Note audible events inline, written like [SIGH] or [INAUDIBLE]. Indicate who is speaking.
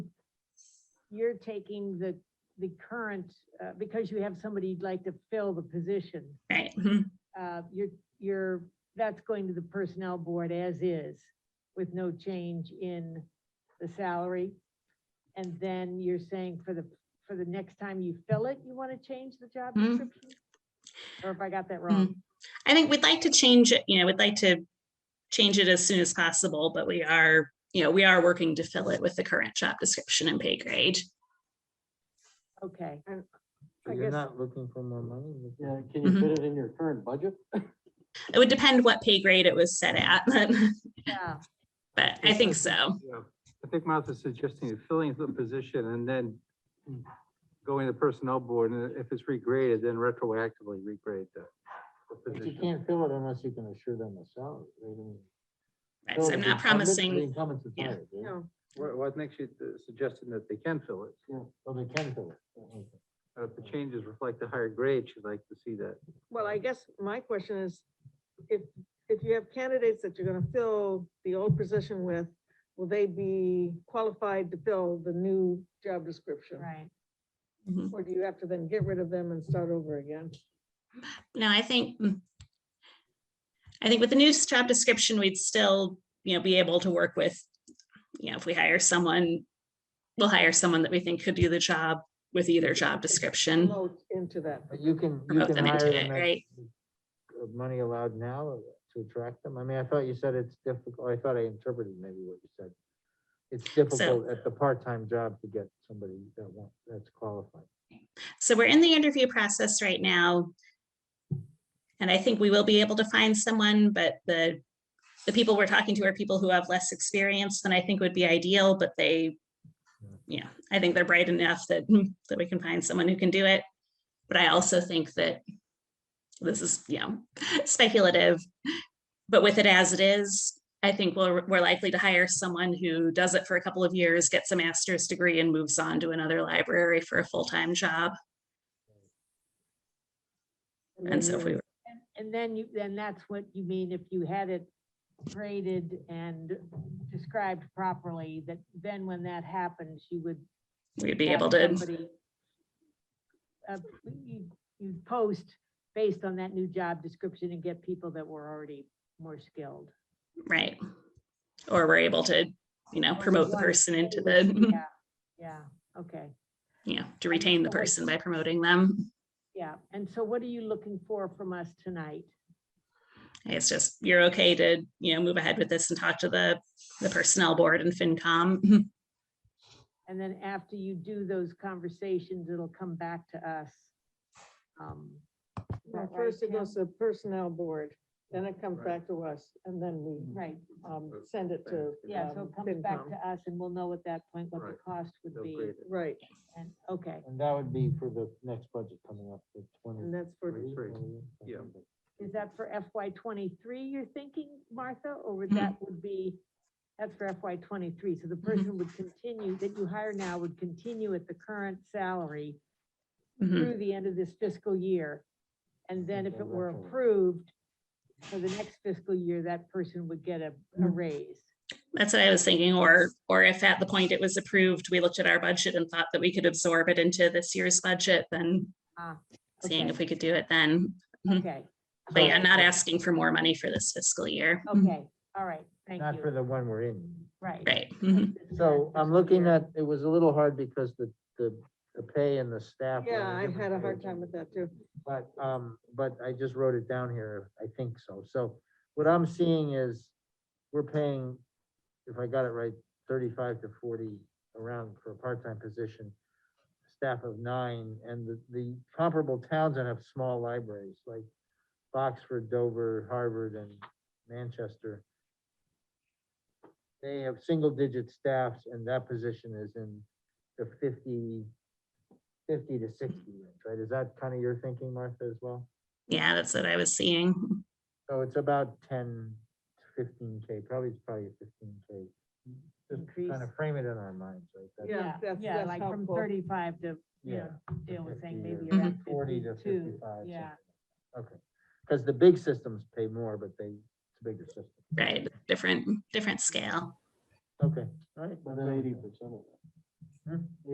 Speaker 1: you're taking the, the current, uh, because you have somebody you'd like to fill the position,
Speaker 2: right? mhm.
Speaker 1: uh, you're, you're, that's going to the Personnel Board as is, with no change in the salary. And then you're saying for the, for the next time you fill it, you want to change the job
Speaker 2: Mm.
Speaker 1: description? Or if I got that wrong?
Speaker 2: I think we'd like to change it, you know, we'd like to change it as soon as possible, but we are, you know, we are working to fill it with the current job description and pay grade. Mm-hmm.
Speaker 1: Okay,
Speaker 3: So
Speaker 1: I
Speaker 3: you're
Speaker 1: guess-
Speaker 3: not looking for more money? you're
Speaker 4: Yeah,
Speaker 3: just-
Speaker 4: can you
Speaker 2: Mhm.
Speaker 4: fit it in your current budget?
Speaker 2: It would depend what pay grade it was set at, [LAUGHS] but,
Speaker 1: yeah,
Speaker 2: but I think so.
Speaker 5: Yeah, I think Martha's suggesting filling the position and then going to the personnel board, and if it's regraded, then retroactively regrade the the
Speaker 3: But you
Speaker 5: position.
Speaker 3: can't fill it unless you can assure them a salary. right? I mean,
Speaker 2: Right,
Speaker 3: fill
Speaker 2: So
Speaker 3: it
Speaker 2: I'm
Speaker 3: with
Speaker 2: not
Speaker 3: incumbent, The
Speaker 2: promising,
Speaker 3: incumbent's
Speaker 2: yeah.
Speaker 3: hired, right?
Speaker 1: no,
Speaker 5: Well, well, I think she's uh, suggesting that they can fill it,
Speaker 3: Yeah, well, they can fill it. Okay.
Speaker 5: but if the changes reflect the higher grade, she'd like to see that.
Speaker 6: Well, I guess my question is, if, if you have candidates that you're gonna fill the old position with, will they be qualified to fill the new job description?
Speaker 1: right.
Speaker 2: Mhm.
Speaker 6: Or do you have to then get rid of them and start over again?
Speaker 2: no, I think, mm. I think with the new job description, we'd still, you know, be able to work with, you know, if we hire someone, we'll hire someone that we think could do the job with either job description.
Speaker 6: Float into that.
Speaker 3: But you can, you
Speaker 2: Promote
Speaker 3: can
Speaker 2: them
Speaker 3: hire
Speaker 2: into it,
Speaker 3: them.
Speaker 2: right?
Speaker 3: at- uh, Money allowed now to attract them? I mean, I thought you said it's difficult, I thought I interpreted maybe what you said. It's difficult at the part-time job to get somebody that wants, that's qualified.
Speaker 2: So we're in the interview process right now. And I think we will be able to find someone, but the, the people we're talking to are people who have less experience than I think would be ideal, but they, yeah, I think they're bright enough that, hmm, that we can find someone who can do it. But I also think that this is, you know, [LAUGHS] speculative, but with it as it is, I think we're, we're likely to hire someone who does it for a couple of years, gets a master's degree and moves on to another library for a full-time job. And so if
Speaker 1: Mm.
Speaker 2: we,
Speaker 1: And- And then you, then that's what you mean if you had it graded and described properly, that then when that happens, you would.
Speaker 2: we'd be
Speaker 1: have
Speaker 2: able to,
Speaker 1: somebody, uh, You you post based on that new job description and get people that were already more skilled.
Speaker 2: right? Or we're able to, you know,
Speaker 1: Or you
Speaker 2: promote the
Speaker 1: want
Speaker 2: person into
Speaker 1: anyways,
Speaker 2: the, [LAUGHS]
Speaker 1: Yeah, yeah, okay,
Speaker 2: you know, to retain the
Speaker 1: someone-
Speaker 2: person by promoting them.
Speaker 1: yeah. And so what are you looking for from us tonight?
Speaker 2: It's just, you're okay to, you know, move ahead with this and talk to the, the personnel board and
Speaker 1: Mm-hmm.
Speaker 2: FinCom.
Speaker 1: And then after you do those conversations, it'll come back to us. Um, is
Speaker 6: Well,
Speaker 1: that right,
Speaker 6: First it
Speaker 1: Tim?
Speaker 6: goes to personnel board, then it comes back to us, and then we,
Speaker 1: Right,
Speaker 5: Mm-hmm.
Speaker 6: um, send it to.
Speaker 1: yeah, so
Speaker 6: um,
Speaker 1: it comes back
Speaker 6: FinCom.
Speaker 1: to us and we'll know at that point what the
Speaker 5: Right.
Speaker 1: cost would
Speaker 5: They'll
Speaker 1: be.
Speaker 5: grade it.
Speaker 6: Right,
Speaker 1: And, okay,
Speaker 3: And that would be for the next budget coming up, the
Speaker 6: and that's for,
Speaker 3: twenty-three.
Speaker 5: Three, yeah.
Speaker 1: is that for FY twenty-three you're thinking, Martha, or would
Speaker 2: Mhm.
Speaker 1: that would be, that's for FY twenty-three, so the person would continue, that you hire now would continue at the current salary
Speaker 2: Mhm.
Speaker 1: through the end of this fiscal year. And then if
Speaker 3: Okay,
Speaker 1: it were
Speaker 3: retro.
Speaker 1: approved for the next fiscal year, that person would get a, a
Speaker 2: Mhm.
Speaker 1: raise.
Speaker 2: That's what I was thinking, or, or if at the point it was approved, we looked at our budget and thought that we could absorb it into this year's budget, then
Speaker 1: Ah,
Speaker 2: seeing
Speaker 1: okay.
Speaker 2: if we could do it then. Mhm.
Speaker 1: Okay,
Speaker 2: But yeah, not asking for more money for this fiscal year.
Speaker 1: okay, all right, thank
Speaker 3: Not for
Speaker 1: you,
Speaker 3: the one we're in.
Speaker 1: right.
Speaker 2: Mm-hmm. Right. mhm.
Speaker 1: This is our
Speaker 3: So I'm
Speaker 1: fiscal
Speaker 3: looking
Speaker 1: year.
Speaker 3: at, it was a little hard because the, the, the pay and the staff. were on
Speaker 6: yeah, I
Speaker 3: different
Speaker 6: had a
Speaker 3: page.
Speaker 6: hard time with that too.
Speaker 3: But, um, but I just wrote it down here, I think so. So what I'm seeing is we're paying, if I got it right, thirty-five to forty around for a part-time position, staff of nine, and the, the comparable towns that have small libraries, like Boxford, Dover, Harvard, and Manchester. They have single-digit staffs, and that position is in the 50, 50 to sixty
Speaker 1: Mm-hmm.
Speaker 3: range, right? Is that kind of your thinking, Martha, as well?
Speaker 2: Yeah, that's what I was seeing.
Speaker 3: So it's about 10 to 15 K, probably, it's probably a fifteen K. Just kind
Speaker 1: Increase.
Speaker 3: of frame it in our minds, right? That's-
Speaker 6: Yeah,
Speaker 1: Yeah,
Speaker 6: that's-
Speaker 1: yeah,
Speaker 6: that's
Speaker 1: like from
Speaker 6: helpful.
Speaker 1: thirty-five to, you know,
Speaker 3: to
Speaker 1: Dale was saying
Speaker 3: 50 or
Speaker 1: maybe around
Speaker 3: Forty to
Speaker 1: fifty-two,
Speaker 3: fifty-five.
Speaker 1: yeah.
Speaker 3: something. Okay, because the big systems pay more, but they, it's a bigger system.
Speaker 2: Right, different, different scale.
Speaker 3: Okay, all right.
Speaker 4: About eighty percent of
Speaker 3: Hmm?